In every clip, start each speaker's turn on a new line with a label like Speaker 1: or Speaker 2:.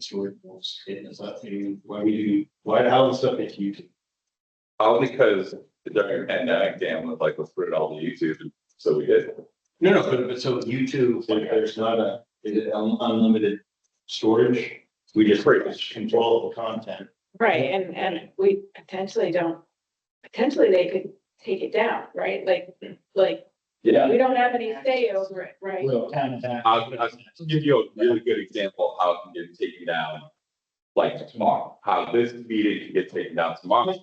Speaker 1: story rules, and is that thing, why we do, why, how the stuff into YouTube?
Speaker 2: Only because during the pandemic, Dan was like, let's put it all to YouTube, and so we did.
Speaker 1: No, no, but, but so YouTube, like, there's not a, is it un- unlimited storage? We just
Speaker 2: Pretty
Speaker 1: control the content.
Speaker 3: Right, and, and we potentially don't, potentially they could take it down, right? Like, like,
Speaker 2: Yeah.
Speaker 3: we don't have any say over it, right?
Speaker 1: Well, kind of.
Speaker 2: I'll, I'll give you a really good example of how it can get taken down. Like tomorrow, how this meeting can get taken down tomorrow.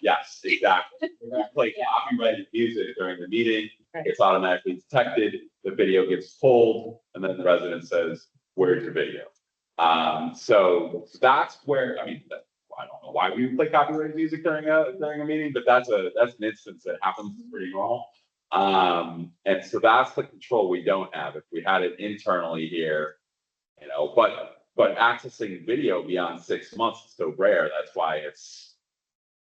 Speaker 2: Yes, exactly. We play copyrighted music during the meeting.
Speaker 3: Right.
Speaker 2: It's automatically detected. The video gets pulled and then the resident says, where's your video? Um, so that's where, I mean, that- I don't know why we would play copyrighted music during a, during a meeting, but that's a, that's an instance that happens It's pretty normal. Um, and so that's the control we don't have. If we had it internally here, you know, but, but accessing video beyond six months is so rare. That's why it's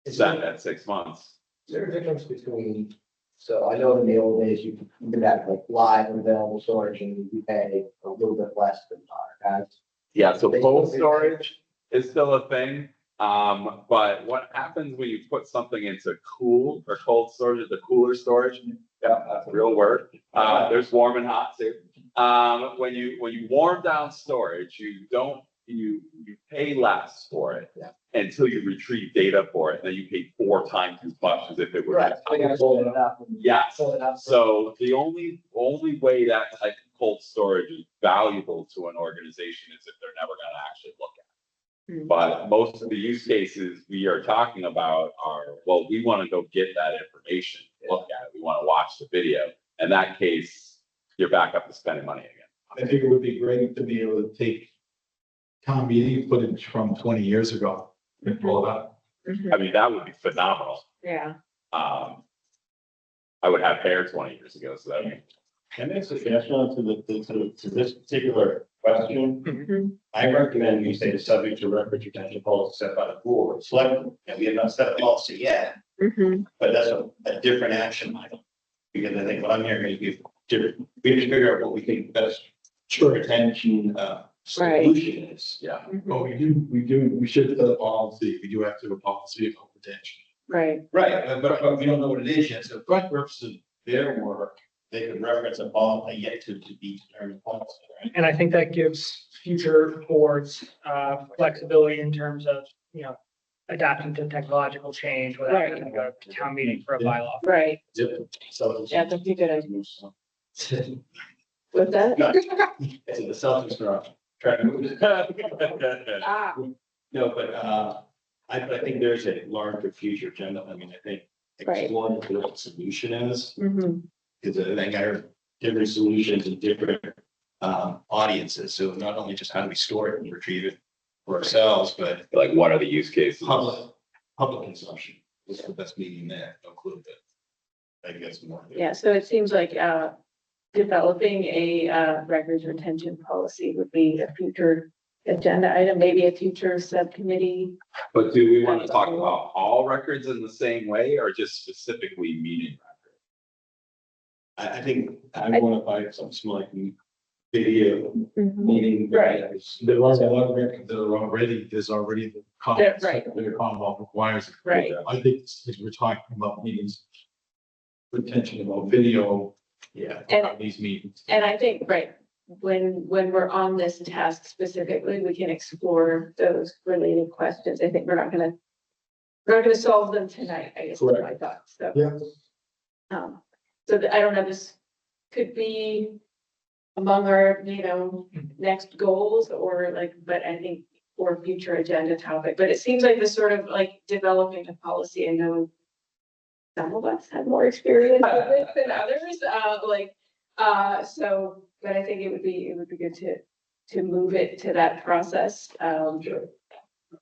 Speaker 4: Is
Speaker 2: set
Speaker 4: there,
Speaker 2: at six months.
Speaker 4: is there a difference between, so I know in the old days, you you could have like live and available storage and you pay a little bit less than archives.
Speaker 2: Yeah, so
Speaker 4: They
Speaker 2: cold
Speaker 4: still do that.
Speaker 2: storage is still a thing. Um, but what happens when you put something into cool or cold storage, the cooler storage?
Speaker 4: Mm-hmm.
Speaker 2: Yeah, that's a real word. Uh, there's warm and hot too. Um, when you, when you warm down storage, you don't, you, you pay less for it.
Speaker 4: Yeah.
Speaker 2: Until you retrieve data for it, then you pay four times as much as if it were.
Speaker 4: So you gotta pull it up and-
Speaker 2: Yeah,
Speaker 4: Pull it up.
Speaker 2: so the only, only way that type of cold storage is valuable to an organization is if they're never gonna actually look at
Speaker 3: Hmm.
Speaker 2: it. But most of the use cases we are talking about are, well, we wanna go get that information, look at it, we wanna watch the video. In that case, you're back up to spending money again.
Speaker 5: I think it would be great to be able to take town meeting footage from twenty years ago and pull it up.
Speaker 3: Mhm,
Speaker 2: I mean, that would be phenomenal.
Speaker 3: Yeah,
Speaker 2: Um, I would have hair twenty years ago, so that would be
Speaker 1: Can I suggest one to the, to, to this particular question?
Speaker 3: Mhm.
Speaker 1: I recommend we say the subject to record retention policy set by the board, of selectmen, and we have not set a policy yet,
Speaker 3: mhm,
Speaker 1: but that's a, a different action item. Because I think what I'm hearing is we've, different- we have to figure out what we think best sure retention, uh, solution is.
Speaker 2: yeah.
Speaker 3: mhm,
Speaker 5: But Oh, we do, we do, we should set a policy, we do have to have a policy about retention.
Speaker 3: right,
Speaker 1: Right, but- but, but we don't know what it is yet, so for purposes of their work, they could reference a bond, a yet to, to be determined policy, right?
Speaker 6: And I think that gives future boards uh flexibility in terms of, you know, adapting to technological change without
Speaker 3: Right.
Speaker 6: having to go to town meeting for a bylaw.
Speaker 3: right.
Speaker 1: So.
Speaker 3: Yeah, that'd be good idea.
Speaker 1: So-
Speaker 3: With that?
Speaker 1: No, It's the Celtics are up. Try to move it.
Speaker 3: Ah,
Speaker 1: No, but uh, I, I think there's a larger future agenda. I mean, I think
Speaker 3: Right.
Speaker 1: exploring what the right solution is,
Speaker 3: mhm,
Speaker 1: because I think I heard different solutions and different um, audiences. So not only just how do we store it and retrieve it for ourselves, but
Speaker 2: Like, what are the use cases?
Speaker 1: public, public consumption was the best meaning there, no clue that. I guess more.
Speaker 3: yeah, so it seems like, uh, developing a, uh, records retention policy would be a future agenda item, maybe a future subcommittee.
Speaker 2: But do we want to talk about all records in the same way or just specifically meeting records?
Speaker 1: I, I think I want to buy some small like, video
Speaker 3: Mhm.
Speaker 1: meeting.
Speaker 3: Right.
Speaker 1: videos.
Speaker 5: There are a lot of records that are already, there's already the
Speaker 3: There-
Speaker 5: Commonwealth,
Speaker 3: right.
Speaker 5: the Commonwealth requires. it.
Speaker 3: Right,
Speaker 5: I think since we're talking about meetings, retention about video,
Speaker 1: Yeah.
Speaker 5: about these meetings.
Speaker 3: And I think, right, when, when we're on this task specifically, we can explore those related questions. I think we're not gonna, we're not gonna solve them tonight, I guess, is my thought, so.
Speaker 5: Yeah.
Speaker 3: Um, so that, I don't know, this could be among our, you know, next goals or like, but I think or future agenda topic, but it seems like this sort of like developing a policy, I know some of us have more experience with this than others, uh, like, uh, so, but I think it would be, it would be good to, to move it to that process, um.
Speaker 1: Sure.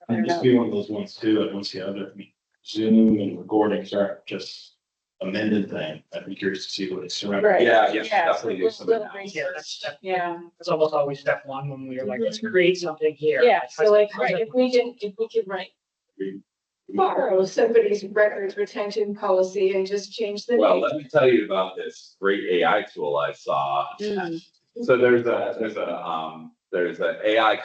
Speaker 3: I don't
Speaker 1: And just
Speaker 3: know.
Speaker 1: be one of those ones too, I don't see other, I mean, Zoom and recordings aren't just amended thing, I'd be curious to see what it's surrounding.
Speaker 3: Right.
Speaker 2: Yeah, yeah,
Speaker 3: Yeah,
Speaker 2: definitely do
Speaker 3: little-
Speaker 2: some
Speaker 3: little
Speaker 2: analysis.
Speaker 6: Yeah,
Speaker 3: research.
Speaker 6: that's step,
Speaker 3: Yeah,
Speaker 6: that's almost always step one when we were like, let's create something here.
Speaker 3: yeah, so like,
Speaker 6: How's
Speaker 3: right,
Speaker 6: it-
Speaker 3: if we can, if we could write, borrow somebody's records retention policy and just change the
Speaker 2: Well,
Speaker 3: name.
Speaker 2: let me tell you about this great AI tool I saw.
Speaker 3: Mm.
Speaker 2: So there's a, there's a, um, there's an AI